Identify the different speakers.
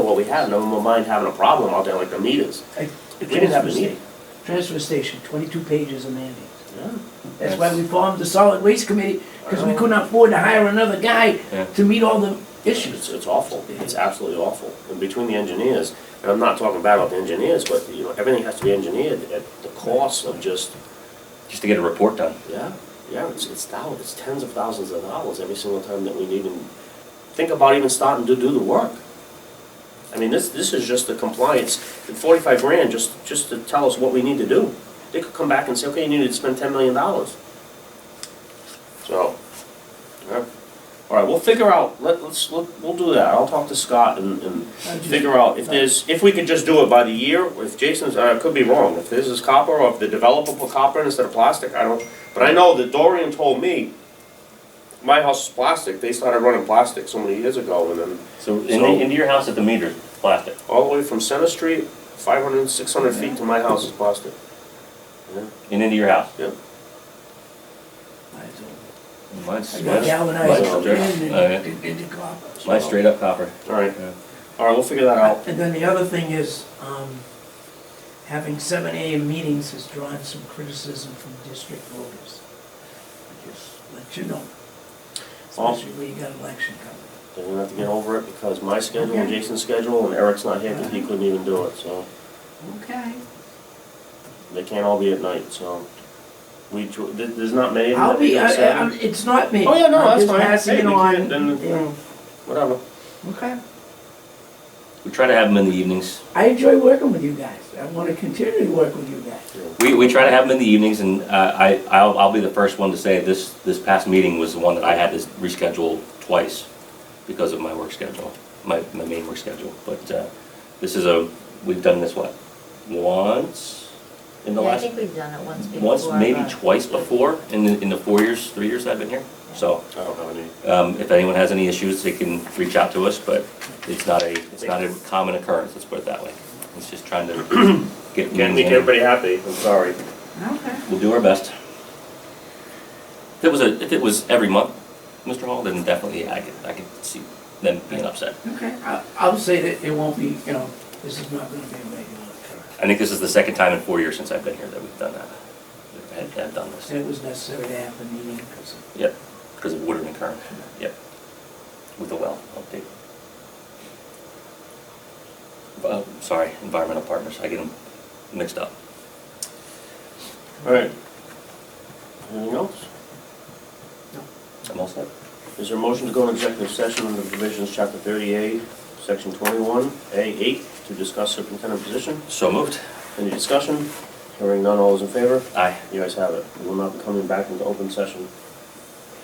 Speaker 1: what we had, no one mind having a problem out there like the meters.
Speaker 2: I-
Speaker 1: We didn't have a meeting.
Speaker 2: Transfer station, twenty-two pages of mandates.
Speaker 1: Yeah.
Speaker 2: That's why we formed the solid waste committee, because we couldn't afford to hire another guy
Speaker 3: Oh. Yeah.
Speaker 2: to meet all the issues.
Speaker 1: It's, it's awful, it's absolutely awful, and between the engineers, and I'm not talking bad about the engineers, but, you know, everything has to be engineered at the cost of just,
Speaker 3: just to get a report done.
Speaker 1: yeah, yeah, it's, it's thou, it's tens of thousands of dollars every single time that we need and think about even starting to do the work. I mean, this, this is just the compliance, the forty-five grand, just, just to tell us what we need to do. They could come back and say, okay, you need to spend ten million dollars. So, yeah. all right, we'll figure out, let, let's, let- we'll do that, I'll talk to Scott and, and
Speaker 2: I just-
Speaker 1: figure out if there's, if we could just do it by the year, or if Jason's, uh, I could be wrong, if this is copper, or if the developer put copper in instead of plastic, I don't, but I know that Dorian told me, my house is plastic, they started running plastic so many years ago, and then
Speaker 3: So in-
Speaker 1: So-
Speaker 3: into your house at the meter, plastic.
Speaker 1: all the way from Center Street, 500, 600 feet to my house is plastic.
Speaker 3: And into your house. Mine's,
Speaker 2: I got
Speaker 3: mine's,
Speaker 2: galvanized
Speaker 3: mine's
Speaker 2: and,
Speaker 3: straight- oh, yeah.
Speaker 2: and, and copper.
Speaker 3: mine's straight up copper.
Speaker 1: All right,
Speaker 3: Yeah.
Speaker 1: all right, we'll figure that out.
Speaker 2: And then the other thing is, um, having seven AM meetings has drawn some criticism from district voters. I Just let you know,
Speaker 1: Well-
Speaker 2: especially when you got election coming.
Speaker 1: They're gonna have to get over it because my schedule and Jason's schedule, and Eric's not here because he couldn't even do it, so
Speaker 2: Okay.
Speaker 1: they can't all be at night, so. We, tr- there- there's not many of them
Speaker 2: I'll
Speaker 1: that meet
Speaker 2: be,
Speaker 1: on
Speaker 2: I- I'm,
Speaker 1: Saturday.
Speaker 2: it's not me.
Speaker 1: uh, Oh, yeah, no,
Speaker 2: I'm
Speaker 1: that's
Speaker 2: just
Speaker 1: fine.
Speaker 2: passing
Speaker 1: Hey,
Speaker 2: it
Speaker 1: we
Speaker 2: on,
Speaker 1: can't- then-
Speaker 2: yeah.
Speaker 1: Whatever.
Speaker 2: Okay.
Speaker 3: We try to have them in the evenings.
Speaker 2: I enjoy working with you guys. I wanna continue to work with you guys.
Speaker 3: We, we try to have them in the evenings and uh, I, I'll, I'll be the first one to say this, this past meeting was the one that I had to reschedule twice because of my work schedule, my, my main work schedule. But uh, this is a, we've done this what, once in the
Speaker 4: Yeah, I
Speaker 3: last
Speaker 4: think we've done it once before.
Speaker 3: once, maybe
Speaker 4: but-
Speaker 3: twice before in the, in the four years, three years I've been here. So,
Speaker 1: I don't have any.
Speaker 3: um, if anyone has any issues, they can reach out to us, but it's not a, it's not a common occurrence, let's put it that way. It's just trying to get.
Speaker 1: Can't make
Speaker 3: meetings in.
Speaker 1: everybody happy, I'm sorry.
Speaker 2: Okay.
Speaker 3: We'll do our best. If it was a, if it was every month, Mr. Hall, then definitely I could, I could see them being upset.
Speaker 2: Okay. I, I'll say that it won't be, you know, this is not gonna be a regular occurrence.
Speaker 3: I think this is the second time in four years since I've been here that we've done that, that I've had- have done this.
Speaker 2: So it was necessary to have the meeting because of
Speaker 3: Yep, because of Woodard and Kern, yep. With the well update. Uh, Sorry, environmental partners, I get them mixed up.
Speaker 1: All right. Anything else?
Speaker 3: I'm all set.
Speaker 1: Is there a motion to go into executive session under provisions, chapter thirty-eight, section twenty-one, A eight, to discuss superintendent position?
Speaker 3: So moved.
Speaker 1: Any discussion? Hearing none, all those in favor?
Speaker 3: Aye.
Speaker 1: You guys have it. We will not be coming back into open session.